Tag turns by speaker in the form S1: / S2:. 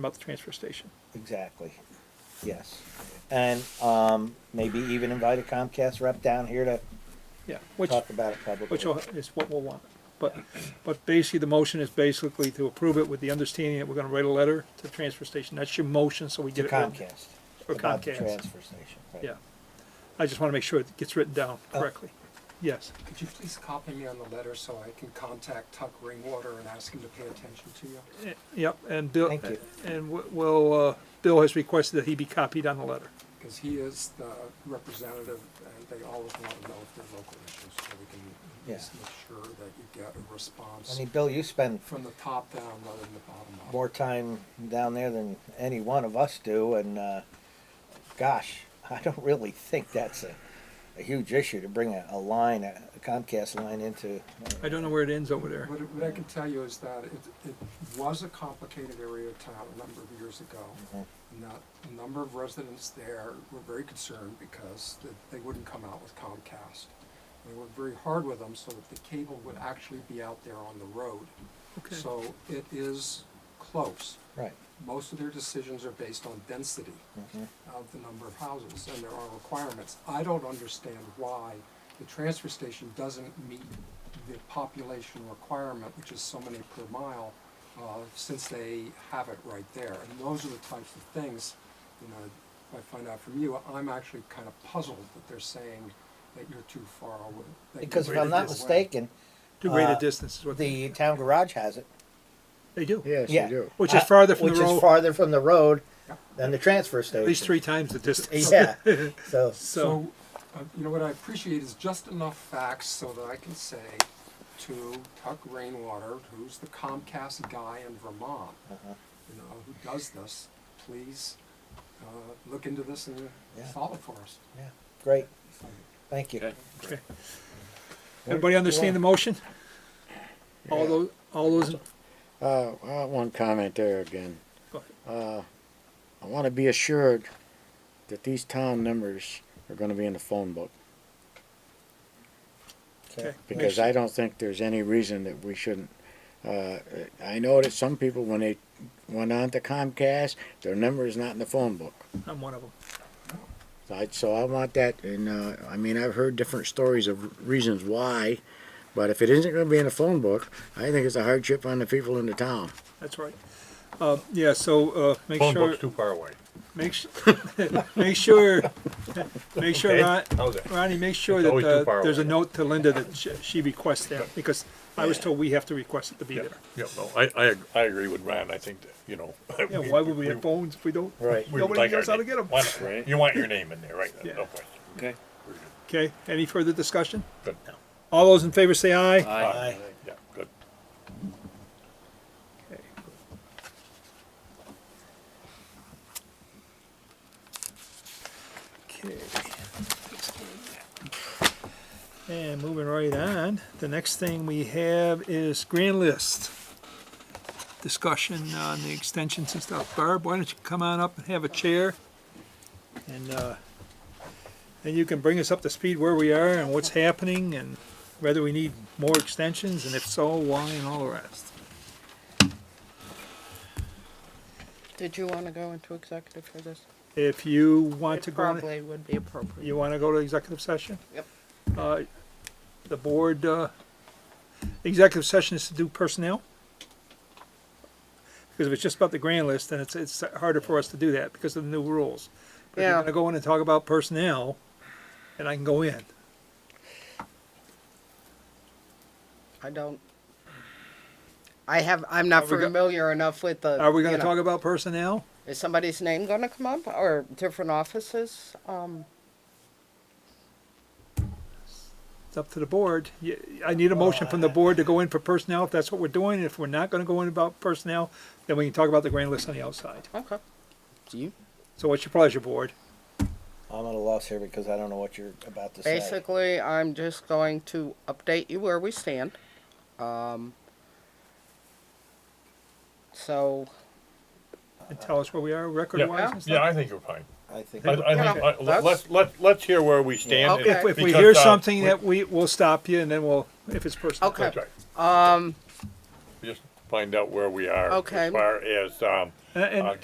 S1: about the transfer station.
S2: Exactly. Yes. And um, maybe even invite a Comcast rep down here to
S1: Yeah, which,
S2: talk about it publicly.
S1: which is what we'll want. But, but basically, the motion is basically to approve it with the understanding that we're gonna write a letter to the transfer station. That's your motion, so we
S2: to
S1: get it. written.
S2: Comcast.
S1: Or
S2: about the
S1: Comcast.
S2: transfer station. Right.
S1: Yeah. I just wanna make sure it gets written down
S2: Oh.
S1: correctly. Yes,
S3: Could you please copy me on the letter so I can contact Tuck Ringwater and ask him to pay attention to you?
S1: Eh, yep, and Bill, eh,
S2: Thank you.
S1: and w- we'll, uh, Bill has requested that he be copied on the letter.
S3: Because he is the representative, and they always want to know if they're local issues, so we can at
S2: Yeah.
S3: least make sure that you get a response
S2: I mean, Bill, you spend
S3: from the top down rather than the bottom up.
S2: more time down there than any one of us do, and uh, gosh, I don't really think that's a, a huge issue to bring a, a line, a Comcast line into.
S1: I don't know where it ends over there.
S3: What what I can tell you is that it, it was a complicated area of town a number of years ago.
S2: Mhm.
S3: And that a number of residents there were very concerned because th- they wouldn't come out with Comcast. They worked very hard with them so that the cable would actually be out there on the road.
S1: Okay.
S3: So it is close.
S2: Right.
S3: Most of their decisions are based on density
S2: Mhm.
S3: of the number of houses, and there are requirements. I don't understand why the transfer station doesn't meet the population requirement, which is so many per mile, uh, since they have it right there. And those are the types of things, you know, if I find out from you, I'm actually kind of puzzled that they're saying that you're too far away. that you're
S2: Because if
S3: way
S2: I'm not
S3: this way.
S2: mistaken,
S1: Too great a
S2: uh,
S1: distance is what they,
S2: the town garage has it.
S1: they do.
S4: Yes,
S2: Yeah.
S4: you do.
S1: Which is farther from the
S2: which is
S1: road,
S2: farther from the road than the transfer station.
S1: at least three times the distance.
S2: Yeah. So
S1: So,
S3: So, uh, you know, what I appreciate is just enough facts so that I can say to Tuck Rainwater, who's the Comcast guy in Vermont, you know, who does this, please uh, look into this and
S2: Yeah.
S3: solve it for us.
S2: yeah, great. Thank you.
S1: okay. Everybody understand the motion? All those, all those, in-
S4: Uh, well, one comment there again. Uh,
S1: go ahead.
S4: I want to be assured that these town numbers are going to be in the phone book
S1: Okay.
S4: because I don't think there's any reason that we shouldn't. Uh, I know that some people, when they went on to Comcast, their number is not in the phone book.
S1: I'm one of them.
S4: So I, so I want that, and uh, I mean, I've heard different stories of reasons why, but if it isn't going to be in the phone book, I think it's a hardship on the people in the town.
S1: That's right. Uh, yeah, so, uh, make
S5: Phone
S1: sure,
S5: book's too far away.
S1: make, su- make sure, make sure,
S5: Okay?
S1: Ron-
S5: How's that?
S1: Ronnie, make sure
S5: It's
S1: that,
S5: always too
S1: uh,
S5: far
S1: there's a
S5: away.
S1: note to Linda that she- she requests that, because I was told we have to request it to be
S5: Yeah,
S1: there.
S5: yeah, no, I, I, ag- I agree with Ron, I think that, you know.
S1: Yeah, why would we have phones if we don't?
S4: Right.
S5: we would
S1: nobody
S5: like our
S1: knows how to
S5: name.
S1: get 'em.
S5: Why not? You want your name in there, right,
S1: Yeah.
S5: no question.
S6: Okay.
S1: Okay, any further discussion?
S5: Good,
S1: All those in favor say aye.
S2: Aye.
S5: yeah, good.
S1: Okay. Okay. And moving right on, the next thing we have is grand list. Discussion on the extensions and stuff. Barb, why don't you come on up and have a chair? And, uh, and you can bring us up to speed where we are and what's happening and whether we need more extensions and if so, why and all the rest.
S7: Did you want to go into executive for this?
S1: If you want
S7: It
S1: to go, in-
S7: probably would be appropriate.
S1: you want to go to executive session?
S7: Yep.
S1: Uh, The board, uh, executive session is to do personnel? Because if it's just about the grand list, then it's, it's harder for us to do that because of the new rules. But if you're
S7: Yeah.
S1: going to go in and talk about personnel, and I can go in.
S7: I don't. I have. I'm not
S1: Are we go-
S7: familiar enough with the.
S1: Are we going
S7: you
S1: to
S7: know,
S1: talk about personnel?
S7: Is somebody's name going to come up or different offices? Um,
S1: It's up to the board. Y- I need a motion from the board to go in for personnel if that's what we're doing. If we're not going to go in about personnel, then we can talk about the grand list on the outside.
S7: okay. Do you?
S1: So what's your pleasure, board?
S2: I'm at a loss here because I don't know what you're about to say.
S7: Basically, I'm just going to update you where we stand. Um. So
S1: and tell us where we are record-wise and
S5: Yeah,
S1: stuff?
S5: I think you're fine.
S2: I think.
S5: I, I think,
S7: Yeah,
S5: I- let-
S7: that's-
S5: let's, let, let's hear where we stand. and-
S7: Okay.
S1: If, if we
S5: because,
S1: hear
S5: uh,
S1: something
S5: we-
S1: that we, we'll stop you and then we'll, if it's personal.
S7: Okay.
S5: That's right.
S7: Um,
S5: Just find out where we are.
S8: Okay.
S5: As far as, um,
S7: And- and-
S5: uh,